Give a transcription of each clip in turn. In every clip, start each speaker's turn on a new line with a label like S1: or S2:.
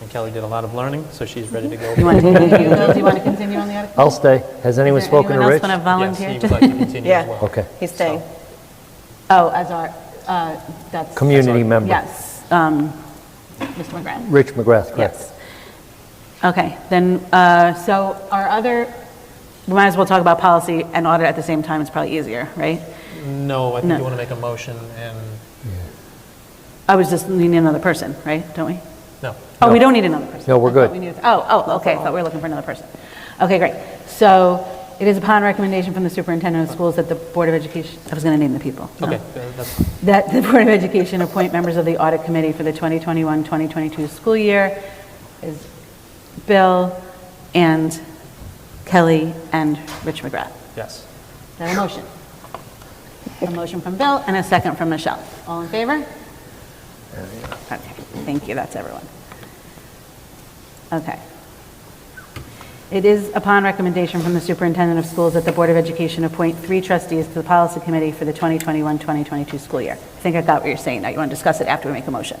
S1: And Kelly did a lot of learning, so she's ready to go.
S2: You want to continue, Bill, do you want to continue on the article?
S3: I'll stay. Has anyone spoken to Rich?
S2: Anyone else want to
S1: Yes, he would
S2: volunteer?
S1: like to continue as well.
S3: Okay.
S4: He's staying.
S2: Oh, as our, uh, that's...
S3: Community member.
S2: Yes. um, Mr. McGrath?
S3: Rich McGrath, correct.
S2: Yes. Okay, then, uh, so our other, we might as well talk about policy and audit at the same time, it's probably easier, right?
S1: No, I think
S2: Mm-hmm. No.
S1: you want to make a motion and,
S2: I was just needing another person, right, don't we?
S1: no.
S2: Oh, we don't need another person.
S3: No, we're
S2: I thought
S3: good.
S2: we needed- Oh, oh, okay, I thought we were looking for another person. Okay, great. So it is upon recommendation from the superintendent of schools that the Board of Education, I was going to name the people. No.
S1: Okay, uh, that's,
S2: That the Board of Education appoint members of the Audit Committee for the 2021-2022 school year is Bill and Kelly and Rich McGrath.
S1: yes.
S2: Is that a motion? A motion from Bill and a second from Michelle. All in favor? Okay, thank you, that's everyone. Okay. It is upon recommendation from the superintendent of schools that the Board of Education appoint three trustees to the policy committee for the 2021-2022 school year. I think I got what you're saying now. You want to discuss it after we make a motion?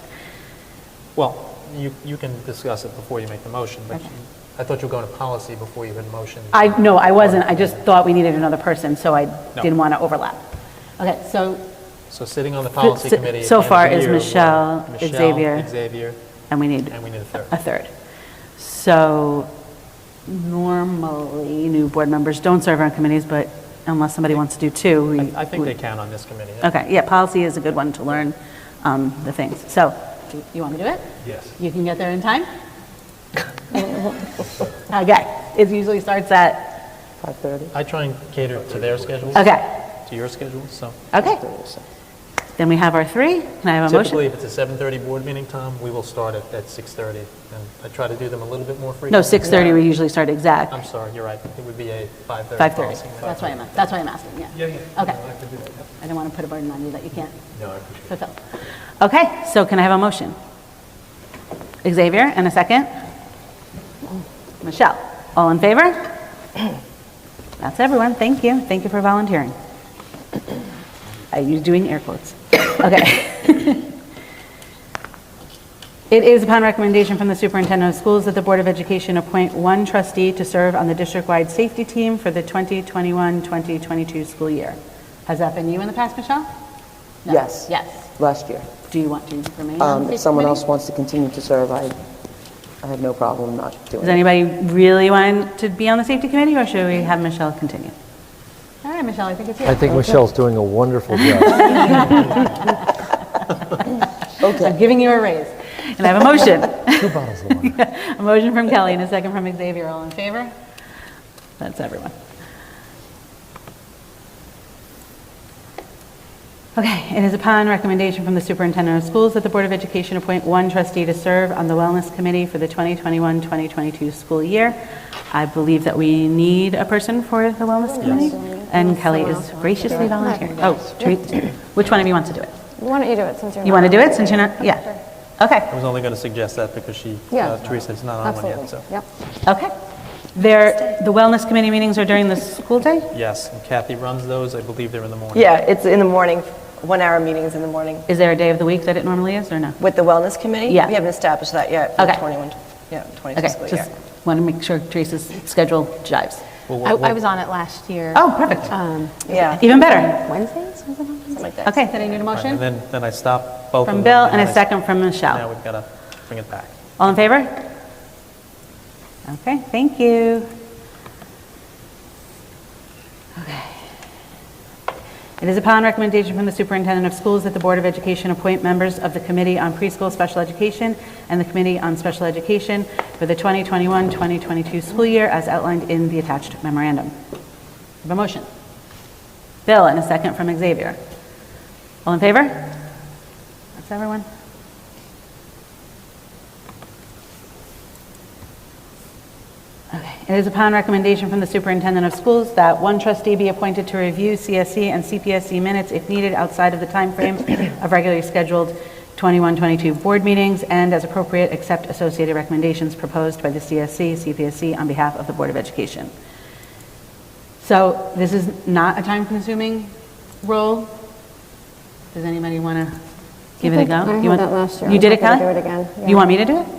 S1: Well, you, you can discuss it before you make the motion, but
S2: Okay.
S1: I thought you were going to policy before you had motion.
S2: I, no, I wasn't. I just thought we needed another person, so I didn't want to overlap. Okay, so,
S1: So sitting on the policy
S2: so-
S1: committee. at
S2: so
S1: the end of
S2: far
S1: the
S2: is
S1: year were
S2: Michelle, Xavier.
S1: Michelle, Xavier,
S2: and we need
S1: and we need a third.
S2: a third. So normally, new board members don't serve on committees, but unless somebody wants to do two, we...
S1: I think
S2: we-
S1: they count on this committee.
S2: Okay, yeah, policy is a good one to learn um, the things. So, do you want to do it?
S1: Yes.
S2: You can get there in time? Okay, it usually starts at,
S4: 5:30.
S1: I try and cater to their schedule, to
S2: okay,
S1: your schedule, so.
S2: okay. Then we have our three. Can I have a motion?
S1: Typically, if it's a 7:30 board meeting, Tom, we will start at, at 6:30, and I try to do them a little bit more
S2: No,
S1: frequently.
S2: 6:30, we usually start exact.
S1: I'm sorry, you're right, it would be a 5:30.
S2: 5:30.
S1: policy.
S2: That's why I'm, that's why I'm asking, yeah.
S1: Yeah, yeah.
S2: Okay.
S1: I can do that, yep.
S2: I don't want to put a burden on you that you can't
S1: No, I appreciate it.
S2: fulfill. Okay, so can I have a motion? Xavier, and a second? Michelle, all in favor? That's everyone, thank you, thank you for volunteering. Are you doing air quotes? Okay. It is upon recommendation from the superintendent of schools that the Board of Education appoint one trustee to serve on the district-wide safety team for the 2021-2022 school year. Has that been you in the past, Michelle? No.
S4: Yes.
S2: Yes.
S4: Last year.
S2: Do you want to remain on
S4: Um,
S2: the
S4: If
S2: safety
S4: someone
S2: committee?
S4: else wants to continue to serve, I, I have no problem not doing
S2: Does
S4: it.
S2: anybody really want to be on the safety committee, or should we have Michelle continue? All right, Michelle, I think it's you.
S3: I think Michelle's doing a wonderful job.
S2: I'm giving you a raise. And I have a motion.
S3: Two bottles of wine.
S2: A motion from Kelly and a second from Xavier. All in favor? That's everyone. Okay, it is upon recommendation from the superintendent of schools that the Board of Education appoint one trustee to serve on the Wellness Committee for the 2021-2022 school year. I believe that we need a person for the Wellness Committee, and Kelly is graciously volunteering. Oh, Teresa, which one of you wants to do it?
S5: Why don't you do it since you're
S2: You
S5: not
S2: want to do
S5: on?
S2: it, since you're not, yeah? Okay.
S1: I was only going to suggest that because she,
S5: Yeah.
S1: uh, Teresa is not on one
S5: Absolutely.
S1: yet, so.
S5: Yep.
S2: Okay. There, the wellness committee meetings are during the school day?
S1: Yes, and Kathy runs those, I believe they're in the morning.
S4: Yeah, it's in the morning, one-hour meetings in the morning
S2: Is there a day of the week that it normally is, or no?
S4: with the Wellness Committee.
S2: Yeah.
S4: We haven't established that yet for the
S2: Okay.
S4: 21, yeah, 20
S2: Okay,
S4: fiscal year.
S2: just want to make sure Teresa's schedule jives.
S1: Well,
S6: I,
S1: what-
S6: I
S1: what-
S6: was on it last year.
S2: Oh, perfect.
S6: Um,
S4: Yeah.
S2: Even better.
S6: Wednesdays, was it on Wednesdays?
S4: Like that.
S2: Okay, then I need a
S1: all right, And
S2: motion?
S1: then, then I stop both of them.
S2: From Bill and
S1: then
S2: a
S1: I-
S2: second from
S1: Now
S2: Michelle.
S1: we've got to bring it back.
S2: All in favor? Okay, thank you. Okay. It is upon recommendation from the superintendent of schools that the Board of Education appoint members of the Committee on Preschool Special Education and the Committee on Special Education for the 2021-2022 school year as outlined in the attached memorandum. Have a motion. Bill, and a second from Xavier. All in favor? That's everyone. It is upon recommendation from the superintendent of schools that one trustee be appointed to review CSE and CPSC minutes if needed outside of the timeframe of regularly scheduled 21-22 board meetings, and as appropriate, accept associated recommendations proposed by the CSC, CPSC on behalf of the Board of Education. So this is not a time-consuming role. Does anybody want to give it a
S6: think
S2: go?
S6: I
S2: You
S6: had
S2: want-
S6: that last year.
S2: You
S6: I'm
S2: did it,
S6: happy
S2: Kelly?
S6: to do it again,
S2: You
S6: yeah.
S2: want me to do it?